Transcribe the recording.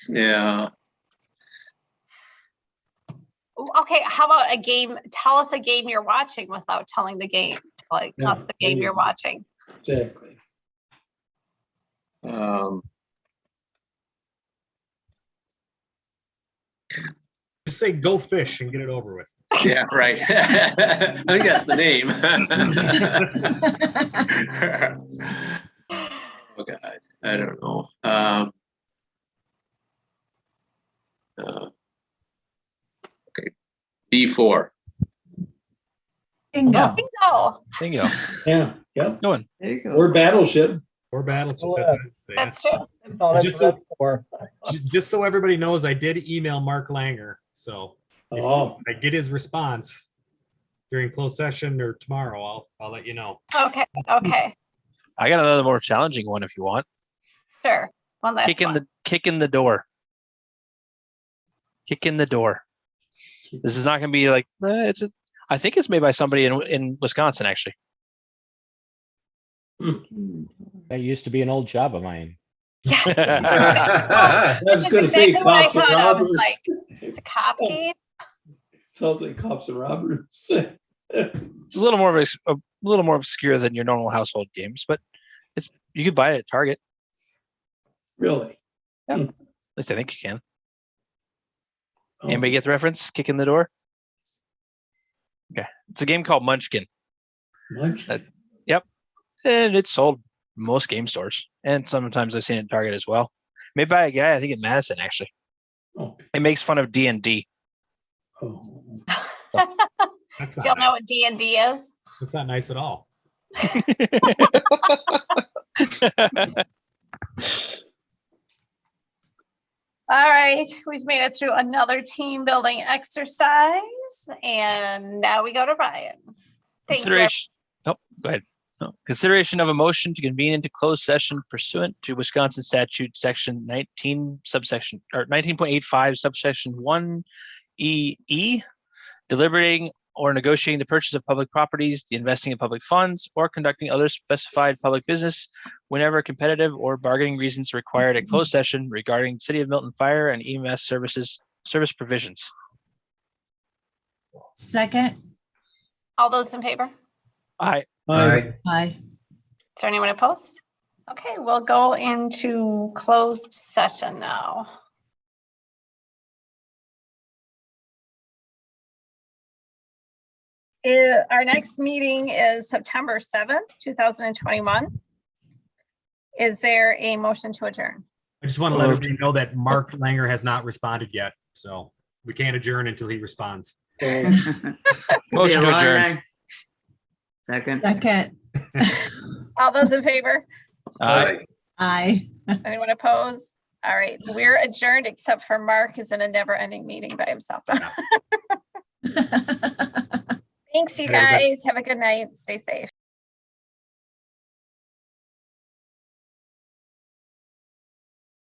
Yeah. Okay, how about a game? Tell us a game you're watching without telling the game, like Yeah, us the game there you you're go. watching. Exactly. Um, Just say go fish and get it over with. yeah, right. I think that's the name. oh God, I don't know. Um, uh, okay, B four. Bingo. Oh, Bingo. Yeah, yeah. Good one. There you go. Or battleship. Or battleship. Oh, that's what I'd say. that's true. Oh, that's Just what that's for. Ju- Just so everybody knows, I did email Mark Langer. So if Oh, I get his response during closed session or tomorrow, I'll, I'll let you know. Okay, okay, I got another more challenging one if you want. sure. One last Kick in one. the kick in the door. Kick in the door. This is not going to be like eh, it's. A, I think it's made by somebody in in Wisconsin actually. That used to be an old job of mine. yeah, I was that's gonna say exactly what I cops and thought. I was robbers. Oh, like, it's a cop game. Sounds like cops and robbers. It's a little more of a, s- a little more obscure than your normal household games, but it's you could buy it at Target. Really? At least I think you can. Oh, Anybody get the reference? Kick in the door. Okay, it's a game called Munchkin, Munch. that- and it's sold in most game stores, and sometimes I've seen it in Target as well. Made by a guy I think in Madison actually. Oh, It makes fun of D and D. oh. That's Do y'all not, know nice. what D and D is? that's not nice at all. All right, we've made it through another team building exercise, and now we go to Ryan. Thank you. Consideration. Oh, go ahead. No. Consideration of a motion to convene into closed session pursuant to Wisconsin statute section nineteen subsection or nineteen point eight five subsection one E E. Deliberating or negotiating the purchase of public properties, the investing of public funds, or conducting other specified public business whenever competitive or bargaining reasons required at closed session regarding City of Milton Fire and EMS services, service provisions. Second. All those in favor? I, Hi. Is Aye. there anyone opposed? Okay, we'll go into closed session now. Eh, Our next meeting is September 7th, 2021. Is there a motion to adjourn? I just want to let everybody know that Mark Langer has not responded yet. So we can't adjourn until he responds. Oh, motion to adjourn. Second. Second. All those in favor? Aye. Aye. Anyone opposed? All right, we're adjourned except for Mark is in a never-ending meeting by himself. Thanks, you Very good. guys. Have a good night. Stay safe.